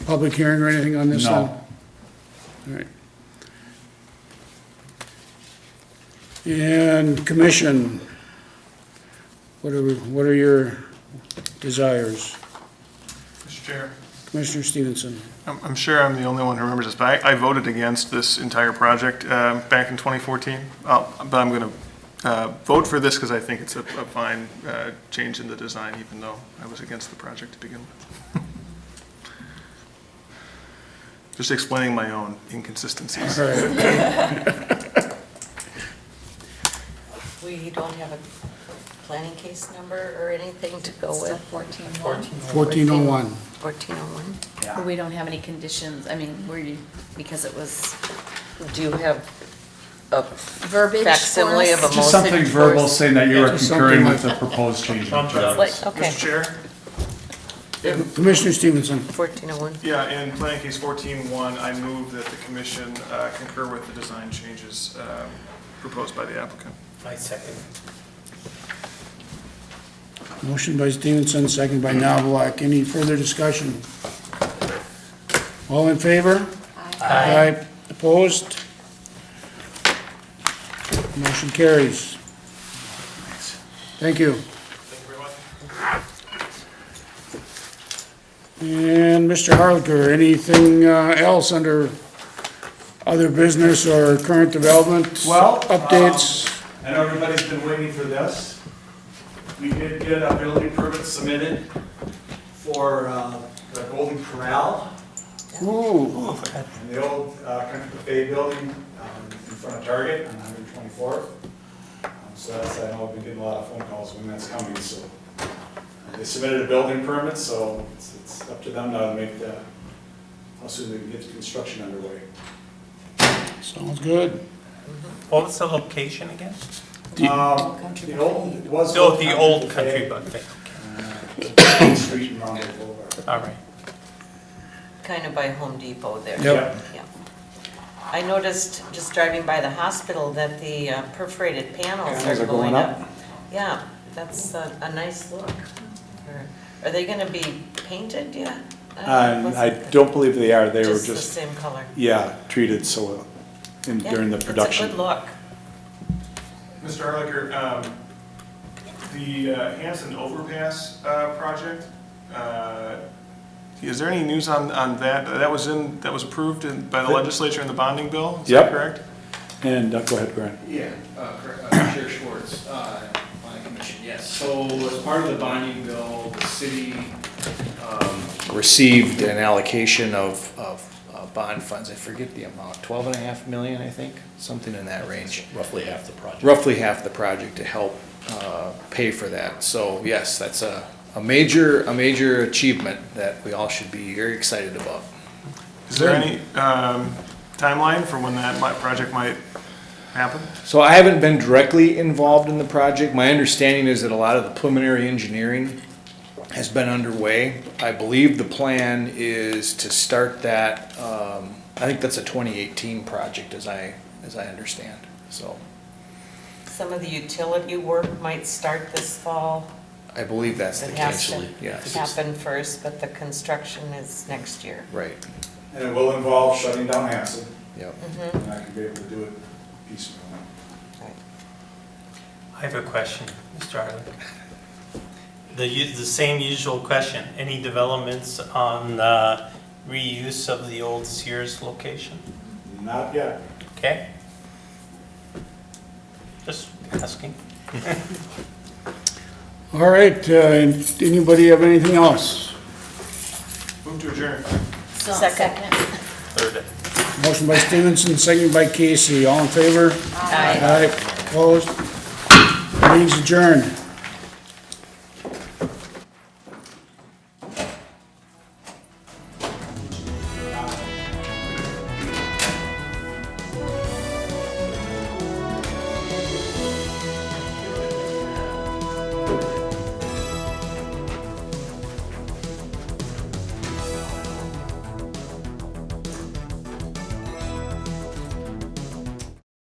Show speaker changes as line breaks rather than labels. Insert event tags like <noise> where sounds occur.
public hearing or anything on this? then?
No,
All right. And commission, what are, what are your desires?
Mr. Chair.
Commissioner Stevenson?
I'm, I'm sure I'm the only one who remembers this, but I, I voted against this entire project um, back in 2014. Uh, But I'm going to vote for this because I think it's a a fine uh, change in the design, even though I was against the project to begin with. <laughs> Just explaining my own inconsistencies.
All right.
We don't have a planning case number or anything to go with?
Fourteen one.
1401.
1401?
But we don't have any conditions, I mean, were you, because it was
Do you have a
verbiage for us?
facsimile of a motion?
just something
for
verbal
us?
saying that you are
just something
concurring
like-
with the proposed change.
Like, Okay,
Mr. Chair?
Commissioner Stevenson?
1401.
Yeah, in planning case 14-1, I move that the commission uh, concur with the design changes um, proposed by the applicant.
I second.
Motion by Stevenson, second by Knobloch. Any further discussion? All in favor? Aye. Opposed? Motion carries. Thank you.
Thank you very much.
And Mr. Harlicker, anything uh, else under other business or current developments?
Well, um,
Updates?
I know everybody's been waiting for this.
We did get a building permit submitted for uh, the Golden Corral
Ooh,
and the old uh, Country Buffet building um, in front of Target on 124th. Um, So that's, I know we did a lot of phone calls when that's coming, so uh, they submitted a building permit, so it's- it's up to them now to make the, how soon they can get the construction underway.
sounds good.
What was the location again?
Um, The old, it was.
Oh, the old country
Buffet,
buffet.
uh, Main Street and Rondo Boulevard.
All right.
Kind of by Home Depot there.
Yep.
Yeah. I noticed, just driving by the hospital, that the uh, perforated panels
Panels
are
are going
going up. Yeah, that's a, a nice look. Are- Are they gonna be painted yet?
Um, I don't believe they are, they were
the
just,
same color.
yeah, treated so, in,
Yeah,
during the production.
It's a good look.
Mr. Erlicher, um, the uh, Hanson Overpass uh, project, uh, is there any news on, on that? That was in, that was approved in- by the legislature in the bonding bill, is
Yep.
that correct?
And, uh, go ahead, Brian.
Yeah, uh, cor- uh, Chair Schwartz, uh, planning commission, yes. So as part of the bonding bill, the city um, received an allocation of, of uh, bond funds. I forget the amount, twelve and a half million, I think, something in that range.
Roughly half the project.
Roughly half the project to help uh, pay for that. So yes, that's a, a major, a major achievement that we all should be very excited about.
Is there any um, timeline for when that mi- project might happen?
So I haven't been directly involved in the project. My understanding is that a lot of the preliminary engineering has been underway. I believe the plan is to start that, um, I think that's a twenty eighteen project as I, as I understand, so
Some of the utility work might start this fall.
I believe that's the
It has
case.
to
Yes.
happen first, but the construction is next year.
Right,
And it will involve shutting down Hanson,
yep.
Hmm.
and I can be able to do it piecemeal.
I have a question, Mr. Arlen. The, u- the same usual question. Any developments on uh, reuse of the old Sears location?
Not yet.
Okay? Just asking.
All right, uh, and anybody have anything else?
Move to adjourn.
So,
Second.
Second.
Third.
Motion by Stevenson, second by Casey. All in favor?
Aye.
Aye. Opposed? Meeting's adjourned.